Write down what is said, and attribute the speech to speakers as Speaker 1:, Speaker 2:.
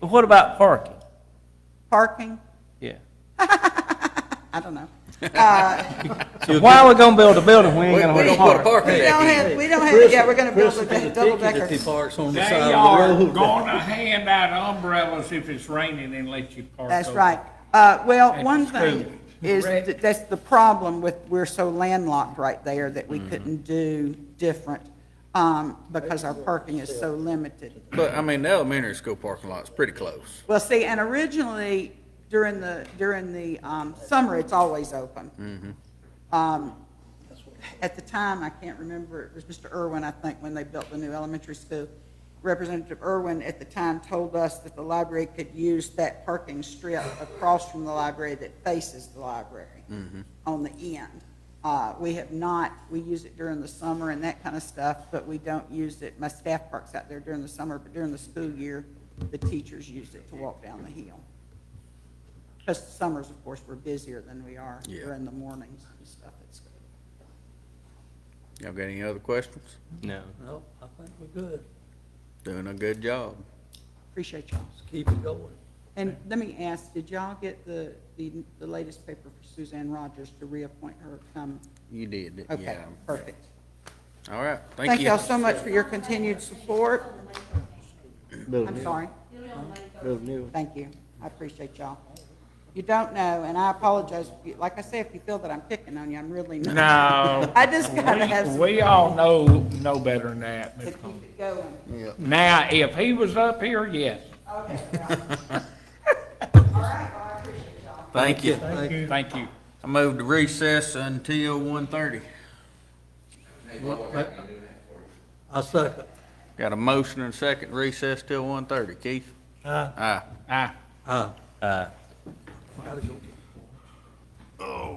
Speaker 1: But what about parking?
Speaker 2: Parking?
Speaker 1: Yeah.
Speaker 2: I don't know.
Speaker 1: So why are we gonna build a building when we ain't
Speaker 3: We're
Speaker 1: got
Speaker 3: gonna
Speaker 1: no
Speaker 3: put
Speaker 1: park?
Speaker 3: a park
Speaker 2: We
Speaker 3: in
Speaker 2: don't
Speaker 3: there.
Speaker 2: have, we don't have, yeah, we're gonna build a double decker.
Speaker 3: He parks on the
Speaker 4: They
Speaker 3: side
Speaker 4: are
Speaker 3: of the road.
Speaker 4: gonna hand out umbrellas if it's raining and let you park.
Speaker 2: That's
Speaker 4: over.
Speaker 2: right. Uh, well,
Speaker 4: At
Speaker 2: one
Speaker 4: the school.
Speaker 2: thing is, that that's the problem with, we're so landlocked right there that we couldn't do different, um, because our parking is so limited.
Speaker 3: But, I mean, the elementary school parking lot's pretty close.
Speaker 2: Well, see, and originally, during the, during the, um, summer, it's always open. Um, At the time, I can't remember, it was Mr. Irwin, I think, when they built the new elementary school. Representative Irwin at the time told us that the library could use that parking strip across from the library that faces the library on the end. Uh, we have not, we use it during the summer and that kind of stuff, but we don't use it, my staff parks out there during the summer, but during the school year, the teachers use it to walk down the hill. Because summers, of course, we're busier than we are
Speaker 3: Yeah.
Speaker 2: during the mornings and stuff at school.
Speaker 3: Y'all got any other questions?
Speaker 1: No.
Speaker 5: No, I think we're good.
Speaker 3: Doing a good job.
Speaker 2: Appreciate y'all.
Speaker 5: Let's keep it going.
Speaker 2: And let me ask, did y'all get the, the, the latest paper for Suzanne Rogers to reappoint her come?
Speaker 3: You did, it,
Speaker 2: Okay,
Speaker 3: yeah.
Speaker 2: perfect.
Speaker 3: All right, thank
Speaker 2: Thank
Speaker 3: you.
Speaker 2: y'all so much for your continued support. I'm sorry. Thank you. I appreciate y'all. You don't know, and I apologize. if you- Like I say, if you feel that I'm picking on you, I'm really not.
Speaker 4: No.
Speaker 2: I just gotta have some,
Speaker 4: We all know, know better than that. Mr.
Speaker 2: to keep
Speaker 4: Combs.
Speaker 2: it going.
Speaker 4: Now, if he was up here, yes.
Speaker 3: Thank you.
Speaker 4: Thank you.
Speaker 3: I moved to recess until one thirty.
Speaker 5: I second.
Speaker 3: Got a motion and second recess till one thirty. Keith? Aye.
Speaker 4: Ah.
Speaker 5: Aye.
Speaker 1: Uh,
Speaker 5: Gotta go.
Speaker 3: Oh,